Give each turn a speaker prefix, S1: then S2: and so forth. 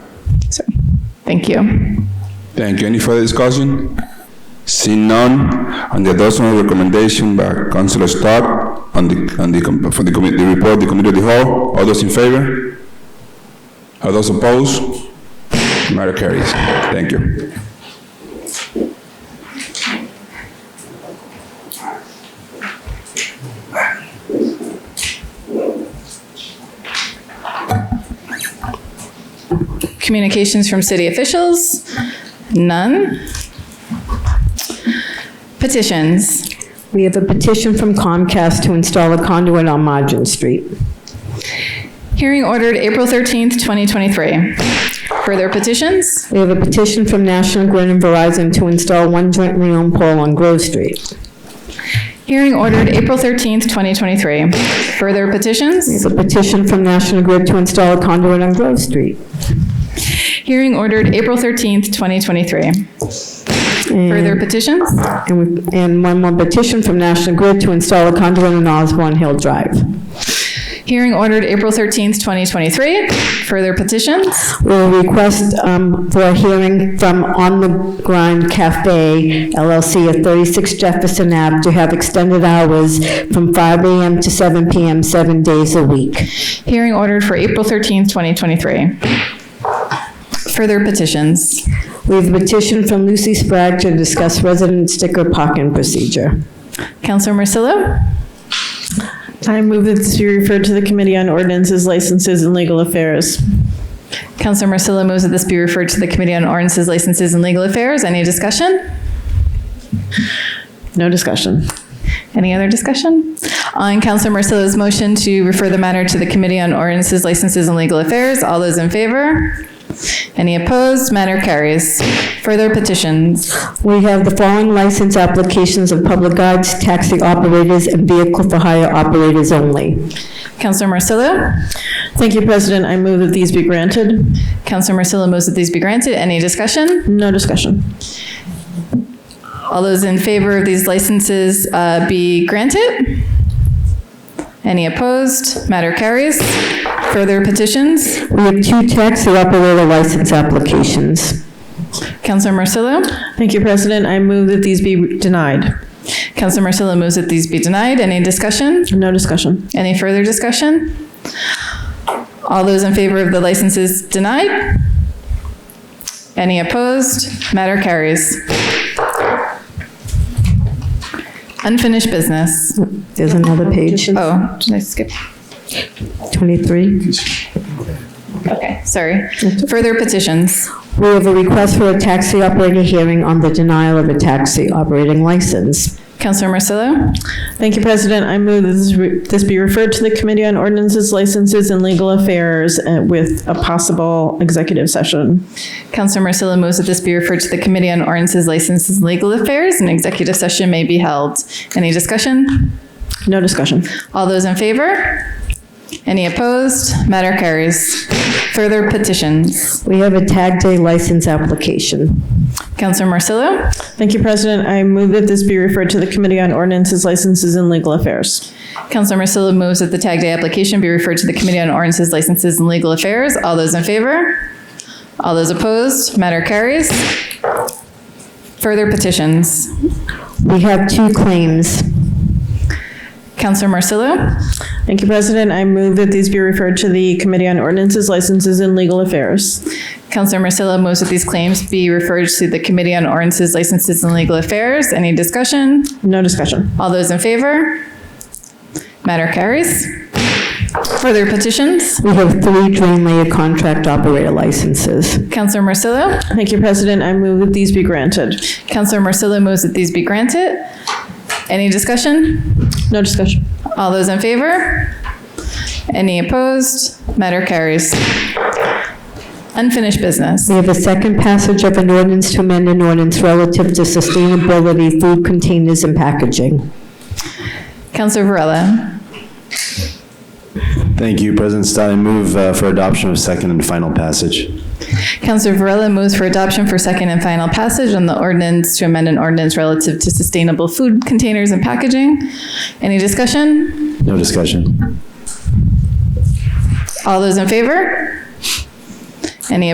S1: Thank you.
S2: Thank you. Any further discussion? Seeing none, on the adoption of recommendation by Councilor Stark on the, on the, com- for the committee, the report, the committee of the whole, all those in favor? All those opposed? Matter carries. Thank you.
S1: Communications from city officials? None. Petitions?
S3: We have a petition from Comcast to install a conduit on Margin Street.
S1: Hearing ordered April 13th, 2023. Further petitions?
S3: We have a petition from National Grid and Verizon to install one jointly owned pole on Grove Street.
S1: Hearing ordered April 13th, 2023. Further
S3: We
S1: petitions?
S3: have a petition from National Grid to install a conduit on Grove Street.
S1: Hearing ordered April 13th, 2023. Further petitions?
S3: And we- and one more petition from National Grid to install a conduit on Osborne Hill Drive.
S1: Hearing ordered April 13th, 2023. Further petitions?
S3: We will request um, for a hearing from On the Grind Cafe LLC at 36 Jefferson Ave to have extended hours from 5 AM to 7 PM, seven days a week.
S1: Hearing ordered for April 13th, 2023. Further petitions?
S3: We have a petition from Lucy Sprague to discuss resident sticker pocket procedure.
S1: Counselor Marcillo?
S4: I move that this be referred to the Committee on Ordinances, Licenses, and Legal Affairs.
S1: Counselor Marcillo moves that this be referred to the Committee on Ordinances, Licenses, and Legal Affairs. Any discussion?
S4: No discussion.
S1: Any other discussion? On Counselor Marcillo's motion to refer the matter to the Committee on Ordinances, Licenses, and Legal Affairs, all those in favor? Any opposed? Matter carries. Further petitions.
S3: We have the following license applications of public guides, taxi operators, and vehicle for hire operators only.
S1: Counselor Marcillo?
S4: Thank you, President. I move that these be granted.
S1: Counselor Marcillo moves that these be granted. Any discussion?
S4: No discussion.
S1: All those in favor of these licenses uh, be granted? Any opposed? Matter carries. Further petitions.
S3: We have two taxi operator license applications.
S1: Counselor Marcillo?
S4: Thank you, President. I move that these be denied.
S1: Counselor Marcillo moves that these be denied. Any discussion?
S4: No discussion.
S1: Any further discussion? All those in favor of the licenses denied? Any opposed? Matter carries. Unfinished business.
S3: There's another page,
S1: Oh, did I skip?
S3: 23.
S1: Okay, sorry. Further petitions.
S3: We have a request for a taxi operator hearing on the denial of a taxi operating license.
S1: Counselor Marcillo?
S4: Thank you, President. I move that this re- this be referred to the Committee on Ordinances, Licenses, and Legal Affairs uh, with a possible executive session.
S1: Counselor Marcillo moves that this be referred to the Committee on Ordinances, Licenses, and Legal Affairs, and executive session may be held. Any discussion?
S4: No discussion.
S1: All those in favor? Any opposed? Matter carries. Further petitions.
S3: We have a tag day license application.
S1: Counselor Marcillo?
S4: Thank you, President. I move that this be referred to the Committee on Ordinances, Licenses, and Legal Affairs.
S1: Counselor Marcillo moves that the tag day application be referred to the Committee on Ordinances, Licenses, and Legal Affairs. All those in favor? All those opposed? Matter carries. Further petitions.
S3: We have two claims.
S1: Counselor Marcillo?
S4: Thank you, President. I move that these be referred to the Committee on Ordinances, Licenses, and Legal Affairs.
S1: Counselor Marcillo moves that these claims be referred to the Committee on Ordinances, Licenses, and Legal Affairs. Any discussion?
S4: No discussion.
S1: All those in favor? Matter carries. Further petitions?
S3: We have three drain layer contract operator licenses.
S1: Counselor Marcillo?
S4: Thank you, President. I move that these be granted.
S1: Counselor Marcillo moves that these be granted. Any discussion?
S4: No discussion.
S1: All those in favor? Any opposed? Matter carries. Unfinished business.
S3: We have a second passage of an ordinance to amend an ordinance relative to sustainability, food containers, and packaging.
S1: Counselor Varela?
S5: Thank you, President Stein. I move uh, for adoption of second and final passage.
S1: Counselor Varela moves for adoption for second and final passage on the ordinance to amend an ordinance relative to sustainable food containers and packaging. Any discussion?
S5: No discussion.
S1: All those in favor? Any